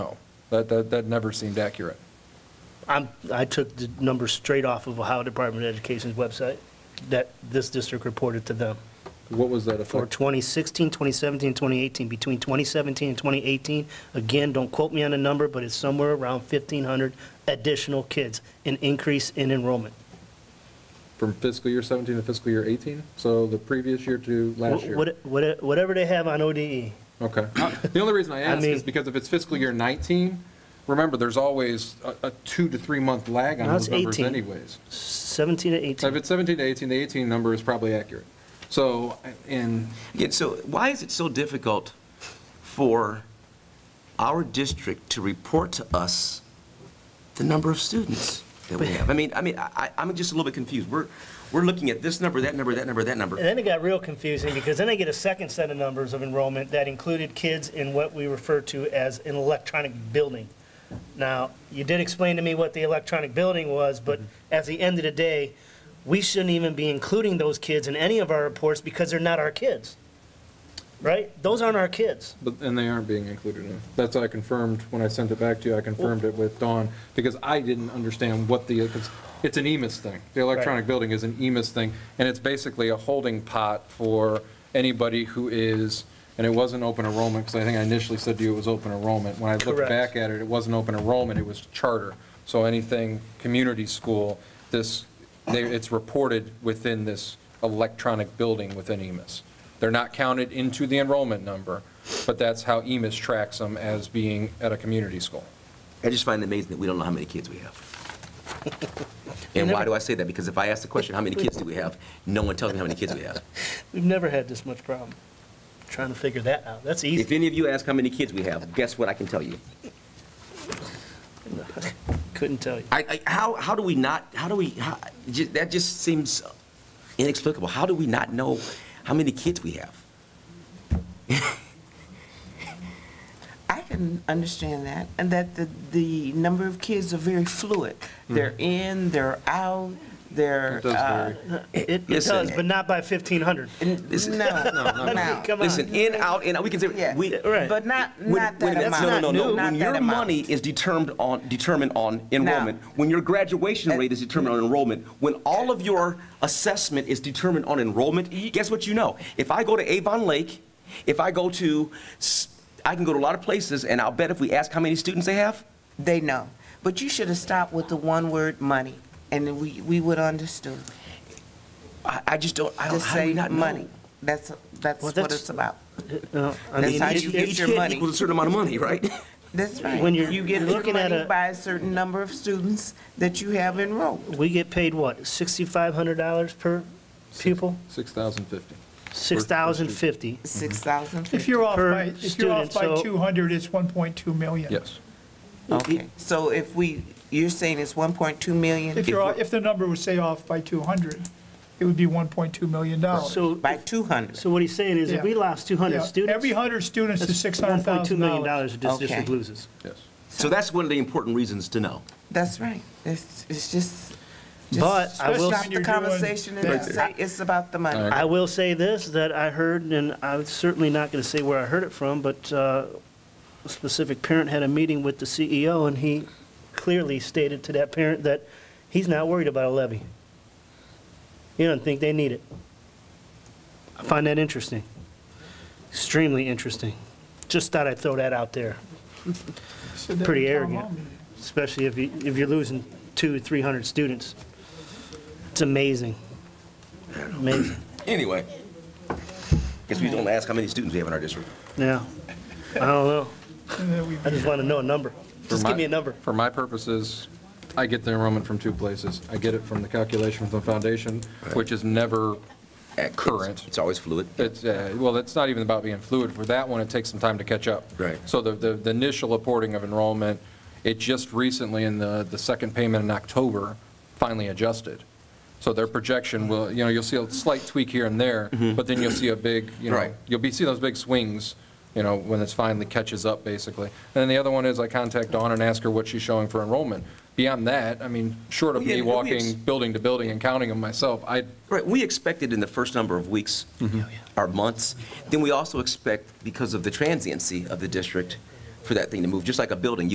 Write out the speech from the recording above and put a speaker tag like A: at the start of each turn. A: That, that, that never seemed accurate.
B: I'm, I took the number straight off of Ohio Department of Education's website that this district reported to them.
A: What was that
B: For
A: effect?
B: 2016, 2017, 2018, between 2017 and 2018, again, don't quote me on the number, but it's somewhere around 1,500 additional kids, an increase in enrollment.
A: From fiscal year 17 to fiscal year 18? So the previous year to last year?
B: What- what- Whatever they have on E, ODE,
A: Okay. The only reason I
B: I
A: ask
B: mean-
A: is because if it's fiscal year 19, remember, there's always a, a two to three month lag on
B: No, it's
A: those numbers
B: 18.
A: anyways.
B: 17 to
A: So if
B: 18.
A: it's 17 to 18, the 18 number is probably accurate. So, and
C: Again, so why is it so difficult for our district to report to us the number of students that we have? I mean, I mean, I, I- I'm just a little bit confused. We're, we're looking at this number, that number, that number, that
B: And
C: number.
B: then it got real confusing because then I get a second set of numbers of enrollment that included kids in what we refer to as an electronic building. Now, you did explain to me what the electronic building was, but
D: Mm-hmm.
B: at the end of the day, we shouldn't even be including those kids in any of our reports because they're not our kids, right? Those aren't our kids.
A: But, and they aren't being included in. it. That's what I confirmed, when I sent it back to you, I confirmed it with Dawn, because I didn't understand what the, because it's an E EMIS thing. The electronic
B: Right.
A: building is an E EMIS thing, and it's basically a holding pot for anybody who is, and it wasn't open enrollment, because I think I initially said to you it was open enrollment. When I looked
B: Correct.
A: back at it, it wasn't open enrollment, it was charter. So anything, community school, this, they, it's reported within this electronic building within E EMIS. They're not counted into the enrollment number, but that's how E EMIS tracks them as being at a community school.
C: I just find it amazing that we don't know how many kids we have. And why do I say that? Because if I ask the question, how many kids do we have? No one tells me how many kids we have.
B: We've never had this much problem trying to figure that out. That's easy.
C: If any of you ask how many kids we have, guess what I can tell you?
B: Couldn't tell you.
C: I, I, how, how do we not, how do we, how, ju- that just seems inexplicable. How do we not know how many kids we have?
D: I can understand that, and that the, the number of kids are very fluid.
C: Hmm.
D: They're in, they're out, they're.
A: It does
D: uh,
B: It it
C: Listen.
B: does, but not by 1,500.
C: Listen,
D: No, no.
B: Come on.
C: Listen, in, out, in, out, we can say,
D: Yeah.
C: we.
B: Right.
D: But not,
C: when-
D: not
C: wait a
D: that
C: minute,
D: amount.
C: No, no, no, no.
D: Not
C: When
D: that
C: your
D: amount.
C: money is determined on, determined on enrollment, when your graduation
D: That-
C: rate is determined on enrollment, when all of your assessment is determined on enrollment, guess what you know? If I go to Avon Lake, if I go to, s- I can go to a lot of places, and I'll bet if we ask how many students they have,
D: They know. But you should have stopped with the one word, money, and then we, we would understood.
C: I, I just don't, I don't,
D: Just
C: how do we
D: say
C: not know?
D: money. That's, that's
B: Well,
D: what
B: that's-
D: it's about.
B: No, I
D: That's
B: mean,
D: how
B: it's-
D: you
C: Each
D: get
C: each
D: your
C: kid
D: money.
C: equals a certain amount of money, right?
D: That's right.
B: When you're-
D: You get
B: you're
D: your
B: looking at
D: money
B: a-
D: by a certain number of students that you have enrolled.
B: We get paid what, $6,500 per pupil?
A: 6,050.
B: 6,050.
D: Six thousand
E: If
D: fifty.
E: you're off
B: Per
E: by, if you're off
B: student,
E: by
B: so-
E: 200, it's 1.2 million.
A: Yes.
D: Okay, so if we, you're saying it's one point two million
E: If you're, off- if the number was, say, off by 200, it would be 1.2 million dollars.
B: So,
D: by two hundred?
B: so what he's saying is if we
E: Oh. Yeah.
B: lost 200
E: Yeah,
B: students.
E: Every 100 students is
B: that's
E: $600,000.
B: $1.2 million dollars that this
D: Okay.
B: district loses.
A: Yes.
C: So that's one of the important reasons to know.
D: That's right. It's, it's just. just
B: But I will-
D: Stop
E: Especially
D: the
E: when you're doing-
D: conversation and
E: Right
D: just
E: there.
D: say it's about the money.
B: I will say this, that I heard, and I'm certainly not going to say where I heard it from, but uh, a specific parent had a meeting with the CEO, and he clearly stated to that parent that he's not worried about a levy. He doesn't think they need it. I find that interesting, extremely interesting. Just thought I'd throw that out there,
E: So that
B: pretty
E: would tell them
B: arrogant.
E: all million.
B: especially if you, if you're losing two, 300 students. It's amazing. Amazing,
C: Anyway, guess we don't ask how many students we have in our district.
B: yeah. I don't know.
E: And then we-
B: I just want to know a number. Just
A: For my-
B: give me a number.
A: For my purposes, I get the enrollment from two places. I get it from the calculation from the foundation, which is never current.
C: It's always fluid.
A: It's, uh, well, it's not even about being fluid. For that one, it takes some time to catch up.
C: Right.
A: So the- the the initial reporting of enrollment, it just recently, in the the second payment in October, finally adjusted. So their projection will, you know, you'll see a slight tweak here and there, but then you'll see a big, you know,
C: Mm-hmm. Right.
A: you'll be, see those big swings, you know, when it's finally catches up, basically. And then the other one is I contact Dawn and ask her what she's showing for enrollment. Beyond that, I mean, short of
C: Yeah,
A: me
C: we ex-
A: walking building to building and counting them myself, I,
C: Right, we expected in the first number of weeks or months, then we also expect, because of the transiency of the district, for that thing to move, just like a building.